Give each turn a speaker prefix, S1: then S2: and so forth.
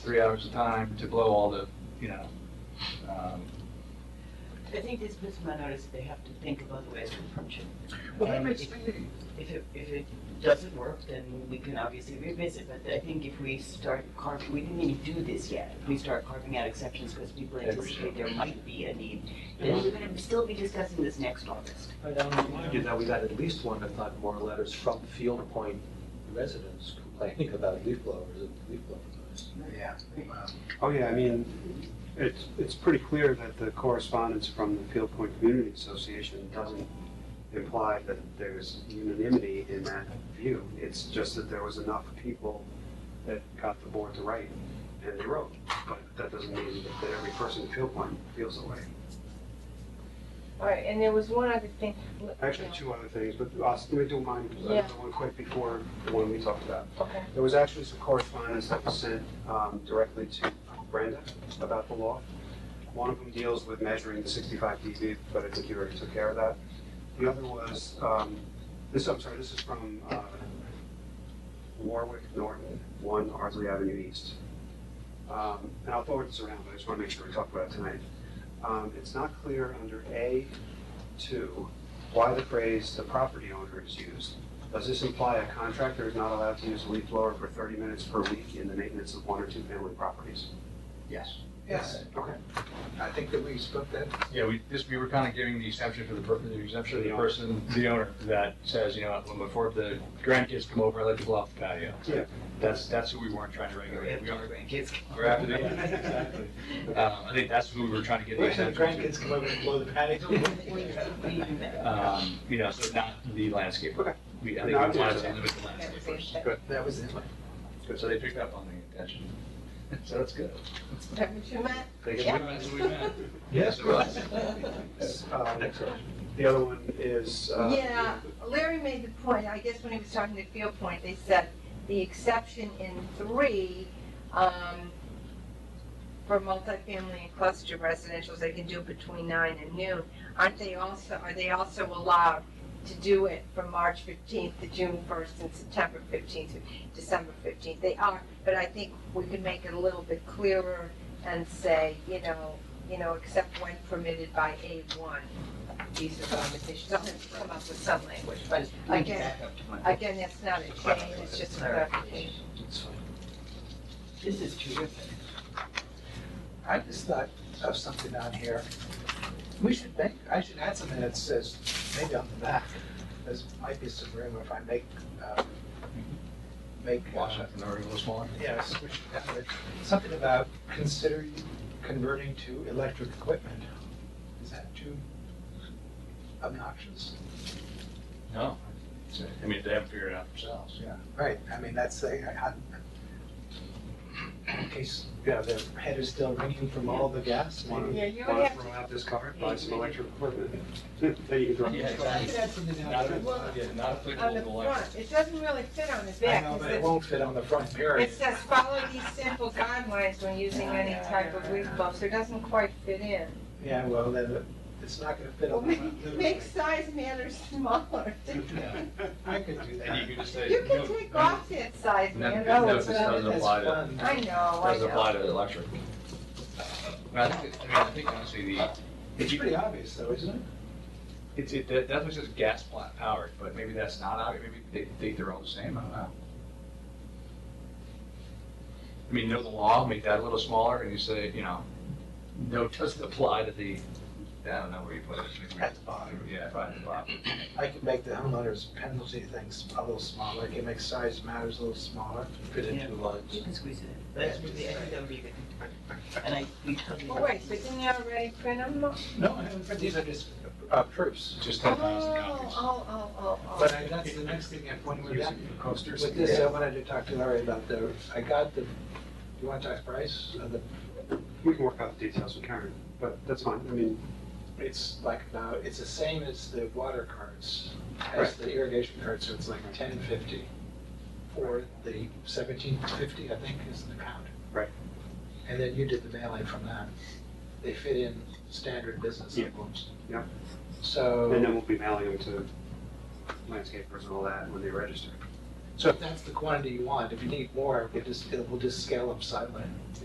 S1: three hours of time to blow all the, you know, um,
S2: I think these my notice, they have to think of other ways to approach it.
S1: Well, that
S2: And
S1: makes
S2: if- If it, if it doesn't work, then we can obviously revisit, but I think if we start carving, we didn't even do this yet. If we start carving out exceptions because people
S1: Yeah, we
S2: anticipate
S1: should.
S2: there might be a need, then we're gonna still be discussing this next August.
S3: Right, I'm reminded that we got at least one, if not more, letters from Field Point residents complaining about leaf blowers and leaf blowers.
S1: yeah.
S4: Oh, yeah, I mean, it's, it's pretty clear that the correspondence from the Field Point Community Association doesn't imply that there's unanimity in that view. It's just that there was enough people that got the board to write and they wrote. But that doesn't mean that every person in Field Point feels that way.
S5: All right, and there was one other thing.
S4: Actually, two other things, but I'll, let me do mine,
S5: Yeah.
S4: the one quick before the one we talked about.
S5: Okay,
S4: There was actually some correspondence that was sent um, directly to Brenda about the law. One of them deals with measuring the 65 dB, but I think you already took care of that. The other was, um, this, I'm sorry, this is from uh, Warwick Norton, 1 Ardsley Avenue East. Um, And I'll forward this around, but I just want to make sure we talk about it tonight. Um, It's not clear under A2 why the phrase "the property owner" is used. Does this imply a contractor is not allowed to use a leaf blower for thirty minutes per week in the maintenance of one or two family properties?
S1: Yes.
S6: Yes,
S4: Okay.
S6: I think that we spoke that,
S1: Yeah, we, this, we were kind of giving the exception for the, per- the exception of the
S4: The owner.
S1: person, the owner, that says, you know, when before the grandkids come over, I let you blow off the patio.
S4: Yeah.
S1: That's, that's who we weren't trying to regulate. We are,
S2: grandkids.
S1: we're after the,
S6: Yeah,
S1: exactly. Um, I think that's who we were trying to get the
S6: wait till the
S1: exception to.
S6: grandkids come over and blow the patio.
S1: Um, you know, so not the landscaper.
S4: Okay.
S1: We, I think
S4: Not
S1: we
S4: the-
S1: wanted to limit the
S5: that was it.
S1: landscapers.
S5: That-
S6: That was it.
S1: So they picked up on the intention. So that's good.
S5: That was your man?
S1: They
S5: Yeah.
S1: can realize who we meant.
S4: Yes,
S1: it was.
S4: Uh, next one. The other one is, uh,
S5: Yeah, Larry made the point, I guess when he was talking to Field Point, they said the exception in three, um, for multifamily and cluster residentials, they can do it between nine and noon. Aren't they also, are they also allowed to do it from March fifteenth to June first and September fifteenth to December fifteenth? They are, but I think we can make it a little bit clearer and say, you know, you know, except when permitted by A one. These are conversations, I'll have to come up with some language, but again, again, that's not a change, it's just a clarification.
S2: This is terrific.
S6: I just thought of something on here. We should make, I should add something that says, maybe on the back, there's, might be some room if I make, uh, make. uh,
S1: Washington, or a little smaller.
S6: Yes, we should have it. Something about considering converting to electric equipment. Is that too obnoxious?
S1: No. So, I mean, they haven't figured it out themselves.
S6: Yeah, right, I mean, that's a, I- I- in case, you know, their head is still ringing from all the gas.
S4: want
S6: maybe.
S5: Yeah,
S4: to,
S5: you
S4: want
S5: have
S4: to throw out this cover, buy some electric equipment. There you go.
S1: Yeah,
S6: But I could add something down
S1: Not,
S6: to it.
S1: yeah, not
S5: On
S1: applicable
S5: the
S1: to electric.
S5: front, it doesn't really fit on the
S6: I
S5: back.
S6: know,
S5: 'cause
S6: but it
S5: it-
S6: won't fit on the front period.
S5: It says, follow these simple guidelines when using any type of leaf blower, so it doesn't quite fit in.
S6: Yeah, well, then it's not gonna fit
S5: Well,
S6: on the
S5: make,
S6: front.
S5: make size matters smaller.
S6: I could do
S1: And you
S6: that.
S1: could just say.
S5: You can
S1: no,
S5: take
S1: no,
S5: off that size
S1: No,
S5: man.
S1: no,
S5: Oh,
S1: this doesn't apply to-
S5: I know, I
S1: Doesn't apply
S5: know.
S1: to electric. But I think, I mean, I think honestly, the,
S6: It's pretty obvious though, isn't it?
S1: it's, it, that- that's what says gas plant powered, but maybe that's not, out- maybe they think they're all the same, I don't know. I mean, know the law, make that a little smaller, and you say, you know, no, it doesn't apply to the, I don't know where you put it. maybe-
S6: At the bottom.
S1: Yeah, right at the bottom.
S6: I can make the homeowner's penalty things a little smaller, I can make size matters a little smaller.
S3: Fit
S2: Yeah.
S3: in two lines.
S2: You can squeeze it in. That's really, I think that would be good. And I, we totally.
S5: But wait, but didn't you already print them? Oh,
S6: No, I haven't, but these are just uh, proofs.
S1: Just
S5: oh,
S1: ten thousand copies.
S5: oh, oh, oh.
S6: But I, that's the next thing, if when we're done with this,
S4: uh,
S6: I wanted to talk to Larry about the, I got the, you want to talk price? Uh, the-
S4: We can work out the details with Karen, but that's fine. I mean,
S6: It's like, now, it's the same as the water cards, as the irrigation cards, so it's like ten fifty. Or the seventeen fifty, I think, is the count.
S4: Right.
S6: And then you did the mailing from that. They fit in standard business
S4: Yeah.
S6: envelopes.
S4: Yeah.
S6: So.
S4: and then we'll be mailing them to landscapers and all that when they register.
S6: So if that's the quantity you want, if you need more, we'll just, we'll just scale up slightly.